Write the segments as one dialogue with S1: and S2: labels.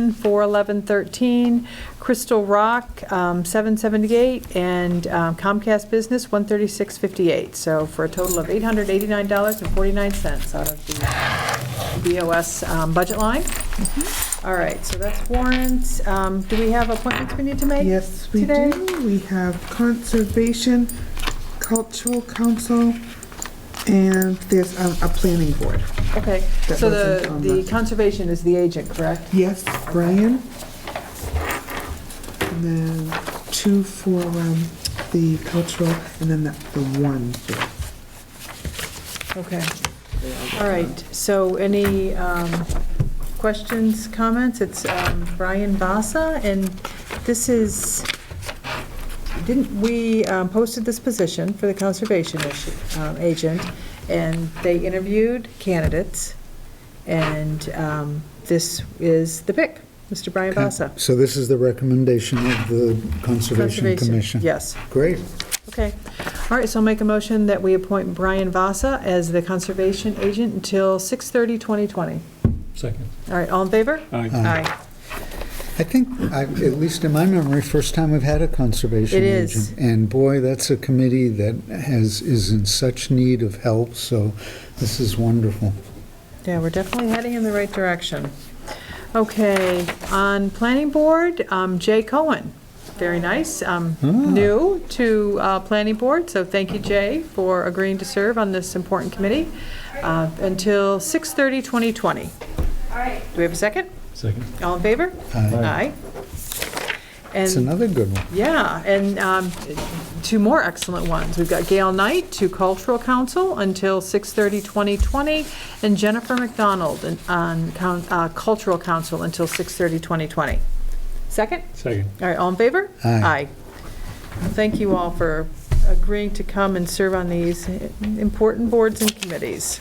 S1: Station, 41113, Crystal Rock, um, 778, and um, Comcast Business, 13658. So for a total of $889.49 out of the BOS um, budget line.
S2: Mm-hmm.
S1: All right, so that's warrants. Um, Do we have appointments we need to make?
S2: Yes, we
S1: today?
S2: do. We have Conservation, Cultural Council, and there's um, a planning board.
S1: Okay,
S2: That
S1: so
S2: wasn't
S1: the,
S2: on
S1: the
S2: the-
S1: conservation is the agent, correct?
S2: Yes, Brian. And then two for um, the cultural, and then the the one. for-
S1: Okay. All right, so any um, questions, comments? It's um, Brian Bassa, and this is, didn't, we um, posted this position for the conservation issue- um, agent, and they interviewed candidates, and um, this is the pick, Mr. Brian Bassa.
S3: So this is the recommendation of the Conservation Commission?
S1: Yes.
S3: Great.
S1: Okay. All right, so I'll make a motion that we appoint Brian Vasa as the conservation agent until 6:30, 2020.
S4: Second.
S1: All right, all in favor?
S4: Aye.
S1: Aye.
S3: I think, I- at least in my memory, first time we've had a conservation
S1: It
S3: agent.
S1: is.
S3: And boy, that's a committee that has, is in such need of help, so this is wonderful.
S1: Yeah, we're definitely heading in the right direction. Okay, on planning board, um, Jay Cohen. Very nice, um,
S3: Ah.
S1: new to uh, planning board, so thank you, Jay, for agreeing to serve on this important committee uh, until 6:30, 2020. All right. Do we have a second?
S4: Second.
S1: All in favor?
S3: Aye. It's
S1: And
S3: another good one.
S1: Yeah, and um, two more excellent ones. We've got Gail Knight to Cultural Council until 6:30, 2020, and Jennifer McDonald in- on coun- uh, Cultural Council until 6:30, 2020. Second?
S4: Second.
S1: All right, all in favor?
S3: Aye.
S1: Aye. Thank you all for agreeing to come and serve on these important boards and committees.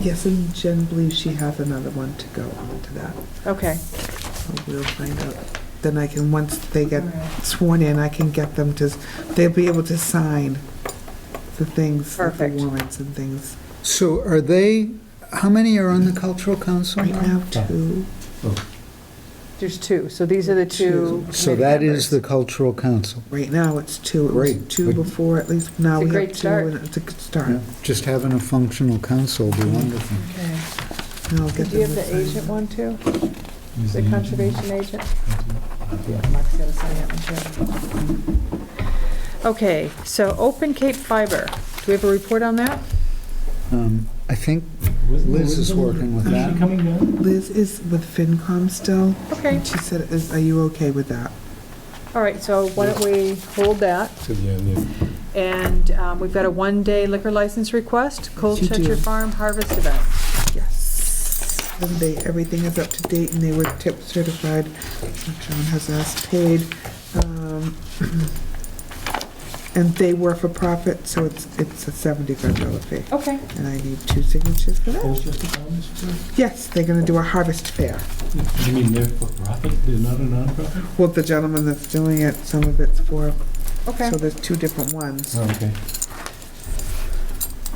S2: Yes, and Jen believes she has another one to go on to that.
S1: Okay.
S2: So We'll find out. Then I can, once they get sworn in, I can get them to, they'll be able to sign the things, like the
S1: Perfect.
S2: warrants and things.
S3: So are they, how many are on the Cultural Council?
S2: Right now,
S3: Oh.
S2: too.
S1: There's two, so these are the two.
S3: So
S1: committee
S3: that
S1: members.
S3: is the Cultural Council.
S2: Right now, it's two. It was
S3: Great.
S2: two before, at least now
S1: It's a
S2: we
S1: great
S2: have two.
S1: start.
S2: and It's a good start.
S3: Yeah. Just having a functional council would be wonderful.
S1: Okay.
S2: And I'll get
S1: Did you have
S2: them to
S1: the
S2: sign
S1: agent
S2: it.
S1: one too? The conservation agent? Yeah, Mark's gotta sign that one, too. Okay, so Open Cape Fiber, do we have a report on that?
S3: Um, I think Liz is working with that.
S4: coming down?
S2: Liz is with FinCom still.
S1: Okay,
S2: She said, "Is are you okay with that?
S1: all right, so why don't we hold that?
S4: To the uh, end, yeah.
S1: And um, we've got a one-day liquor license request, Cold
S2: You do.
S1: Chester Farm Harvest Event.
S2: Yes. And they, everything is up to date and they were tip certified. John has us paid. um, And they were for profit, so it's, it's a seventy-five dollar fee.
S1: Okay,
S2: And I need two signatures for that.
S4: Colchester
S3: Oh.
S4: Commons?
S2: Yes, they're gonna do a harvest fair.
S4: You mean they're for profit? They're not a nonprofit?
S2: Well, the gentleman that's doing it, some of it's for,
S1: okay.
S2: so there's two different ones.
S4: Oh, Okay.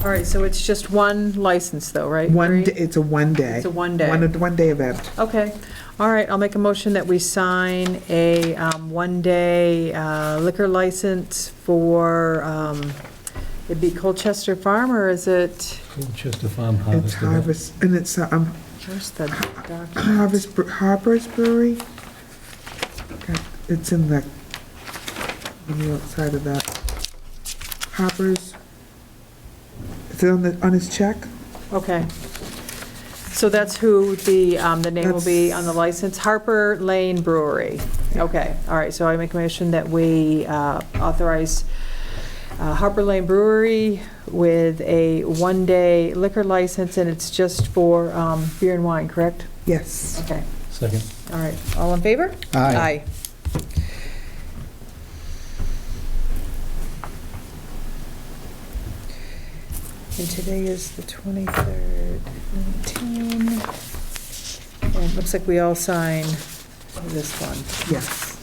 S1: All right, so it's just one license though, right?
S2: One,
S1: Marie?
S2: d- it's a one day.
S1: It's a one day.
S2: One, one day event.
S1: Okay, all right, I'll make a motion that we sign a um, one-day uh, liquor license for, um, it'd be Colchester Farm, or is it,
S4: Colchester Farm Harvest.
S2: It's
S4: Event.
S2: harvest, and it's, uh, um,
S1: where's the document?
S2: Harvest, Bre- Harper's Brewery. Okay, It's in the, on the outside of that. Harper's, is it on the, on his check?
S1: Okay. So that's who the, um, the name will be on the license, Harper Lane Brewery. Okay, all right, so I make a motion that we uh, authorize uh, Harper Lane Brewery with a one-day liquor license, and it's just for um, beer and wine, correct?
S2: Yes.
S1: Okay,
S4: Second.
S1: all right, all in favor?
S3: Aye.
S1: And today is the 23rd, 19. And it looks like we all sign this one.
S2: Yes.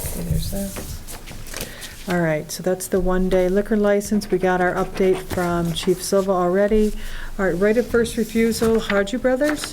S1: Okay, there's that. All right, so that's the one-day liquor license. We got our update from Chief Silva already. All right, right of first refusal, Harju Brothers?